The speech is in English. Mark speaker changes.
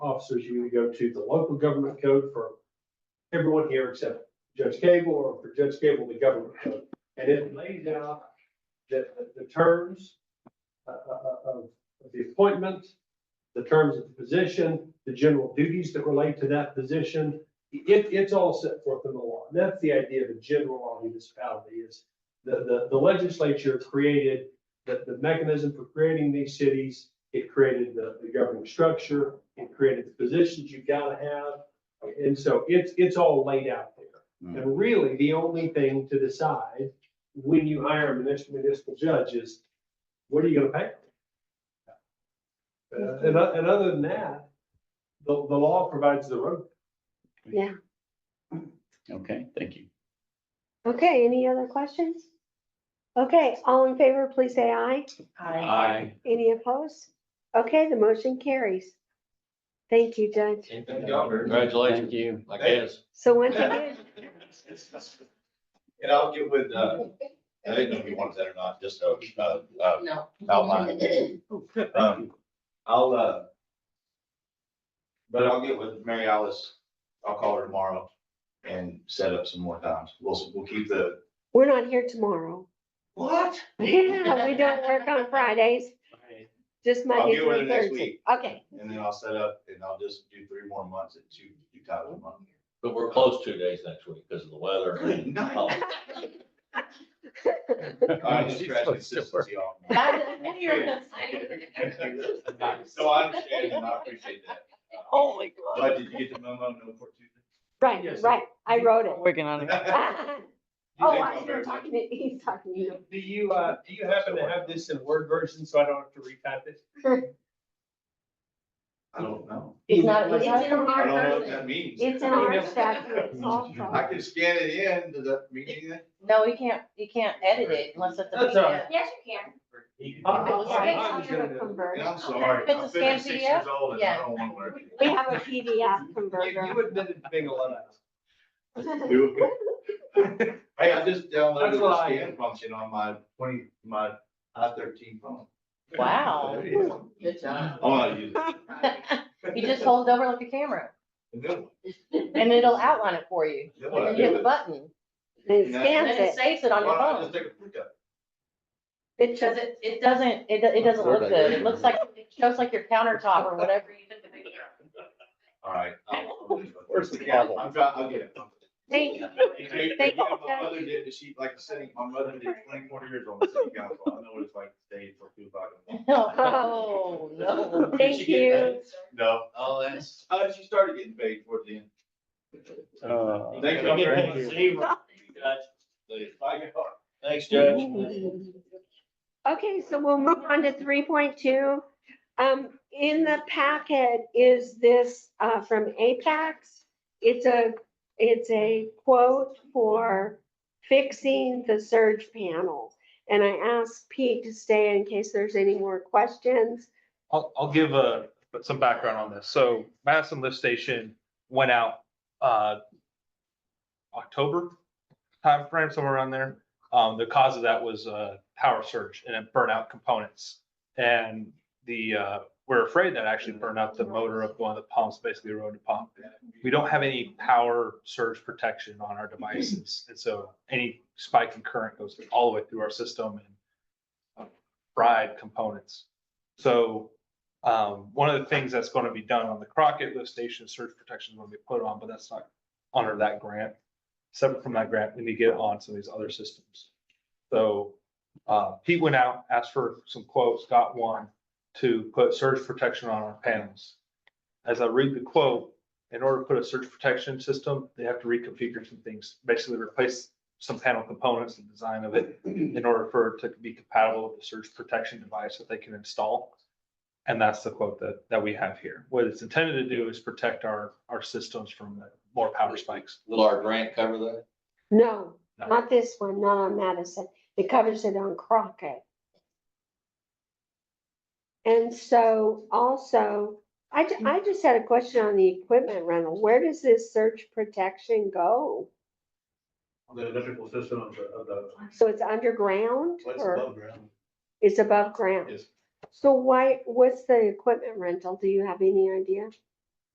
Speaker 1: officers, you either go to the local government code for everyone here except Judge Cable, or for Judge Cable, the government code. And it lays out the, the terms uh, uh, uh, of the appointment, the terms of the position, the general duties that relate to that position. It, it's all set forth in the law. And that's the idea of a general law municipality is the, the, the legislature created the, the mechanism for creating these cities. It created the, the governing structure. It created the positions you gotta have. And so it's, it's all laid out there. And really, the only thing to decide when you hire a municipal, municipal judge is, what are you gonna pay? Uh, and, o- and other than that, the, the law provides the road.
Speaker 2: Yeah.
Speaker 3: Okay, thank you.
Speaker 2: Okay, any other questions? Okay, all in favor, please say aye.
Speaker 3: Aye.
Speaker 2: Any opposed? Okay, the motion carries. Thank you, Judge.
Speaker 4: Thank y'all very much,
Speaker 3: Congratulations. Thank you.
Speaker 4: I guess.
Speaker 2: So once again,
Speaker 4: And I'll get with, uh, I didn't know if you wanted that or not, just, uh, uh,
Speaker 5: No.
Speaker 4: outline. Um, I'll, uh, but I'll get with Mary Alice. I'll call her tomorrow and set up some more times. We'll, we'll keep the.
Speaker 2: we're not here tomorrow.
Speaker 4: What?
Speaker 2: Yeah, we don't work on Fridays, just
Speaker 4: I'll
Speaker 2: Monday
Speaker 4: get with her
Speaker 2: through
Speaker 4: next
Speaker 2: Thursday.
Speaker 4: week
Speaker 2: Okay,
Speaker 4: and then I'll set up and I'll just do three more months at two, two times a month.
Speaker 6: But we're closed two days next week because of the weather.
Speaker 4: Good night.
Speaker 6: Oh,
Speaker 4: I just
Speaker 3: She's
Speaker 4: scratched
Speaker 3: supposed to
Speaker 4: consistency off. So I understand and I appreciate that.
Speaker 5: Oh, my
Speaker 4: But did you get the memo? No, for Tuesday?
Speaker 2: right,
Speaker 1: Yes.
Speaker 2: right, I wrote it.
Speaker 7: Working on it.
Speaker 2: Oh, I am talking to, he's talking to you.
Speaker 1: Do you, uh, do you happen to have this in Word version so I don't have to retype it?
Speaker 4: I don't know.
Speaker 5: It's not,
Speaker 1: It's
Speaker 5: it's not
Speaker 2: in
Speaker 4: I
Speaker 2: our
Speaker 5: our
Speaker 4: don't know what that means.
Speaker 2: It's in our statute.
Speaker 4: I can scan it in. Does that mean anything?
Speaker 5: No, you can't, you can't edit it unless it's a
Speaker 1: That's all
Speaker 5: PDF.
Speaker 1: right.
Speaker 8: Yes, you can.
Speaker 1: I-
Speaker 2: It's
Speaker 1: I- I
Speaker 2: based
Speaker 1: was
Speaker 2: on
Speaker 1: gonna
Speaker 2: a
Speaker 1: do it.
Speaker 4: And
Speaker 2: converter.
Speaker 4: I'm sorry,
Speaker 5: It's a
Speaker 4: I'm
Speaker 5: scan PDF?
Speaker 4: fifty-six years old and I
Speaker 5: Yeah.
Speaker 4: don't want to work.
Speaker 2: We have a PDF
Speaker 1: You
Speaker 2: converter.
Speaker 1: you admitted to being a lot.
Speaker 4: Hey, I just downloaded
Speaker 1: That's what
Speaker 4: the
Speaker 1: I
Speaker 4: scan function on my twenty, my I thirteen phone.
Speaker 5: Wow. Good
Speaker 4: I
Speaker 5: job.
Speaker 4: want to use it.
Speaker 5: You just hold it over like a camera
Speaker 4: And then,
Speaker 5: and it'll outline it for you.
Speaker 4: then what I
Speaker 5: And you hit
Speaker 4: do
Speaker 5: the
Speaker 4: is.
Speaker 5: button
Speaker 2: It
Speaker 5: and
Speaker 2: scans
Speaker 5: then it
Speaker 2: it.
Speaker 5: saves it on your
Speaker 4: why don't I
Speaker 5: phone.
Speaker 4: Just take a picture.
Speaker 2: It
Speaker 5: Because
Speaker 2: just,
Speaker 5: it, it doesn't, it, do- it doesn't look good. It looks like, it shows like your countertop or whatever.
Speaker 4: All right. I'll-
Speaker 3: Where's the gavel?
Speaker 4: I'm trying, I'll get it.
Speaker 2: thank you.
Speaker 4: Again,
Speaker 2: Thank you.
Speaker 4: My mother did, the she, like, sitting, my mother did twenty-four years on the city council. I know what it's like to stay till two o'clock. in the morning.
Speaker 5: Oh, no.
Speaker 2: Thank you.
Speaker 4: No. Oh, that's. Uh, she started getting paid towards the end.
Speaker 3: Uh,
Speaker 4: Thank you very much.
Speaker 6: Thanks, Judge.
Speaker 2: Okay, so we'll move on to three point two. Um, in the packet is this, uh, from Apex. It's a, it's a quote for fixing the surge panel. And I asked Pete to stay in case there's any more questions.
Speaker 9: I'll, I'll give a, some background on this. So Madison Lift Station went out, uh, October timeframe, somewhere around there. Um, the cause of that was a power surge and it burnt out components. And the, uh, we're afraid that actually burned out the motor of one of the pumps, basically rode the pump. We don't have any power surge protection on our devices. And so any spike in current goes all the way through our system and uh, fried components. So um, one of the things that's gonna be done on the Crockett lift station, surge protection is gonna be put on, but that's not under that grant. Separate from that grant, we need to get it on some of these other systems. So, uh, Pete went out, asked for some quotes, got one to put surge protection on our panels. As I read the quote, in order to put a surge protection system, they have to reconfigure some things, basically replace some panel components and design of it in order for it to be compatible with the surge protection device that they can install. And that's the quote that, that we have here. What it's intended to do is protect our, our systems from more power spikes.
Speaker 6: Will our grant cover that?
Speaker 2: No,
Speaker 9: No.
Speaker 2: not this one, not on Madison. It covers it on Crockett. And so also, I, ju- I just had a question on the equipment rental. Where does this search protection go?
Speaker 1: The electrical system of the, of the.
Speaker 2: So it's underground
Speaker 4: What's
Speaker 2: or
Speaker 4: above ground?
Speaker 2: it's above ground?
Speaker 4: Yes.
Speaker 2: So why, what's the equipment rental? Do you have any idea?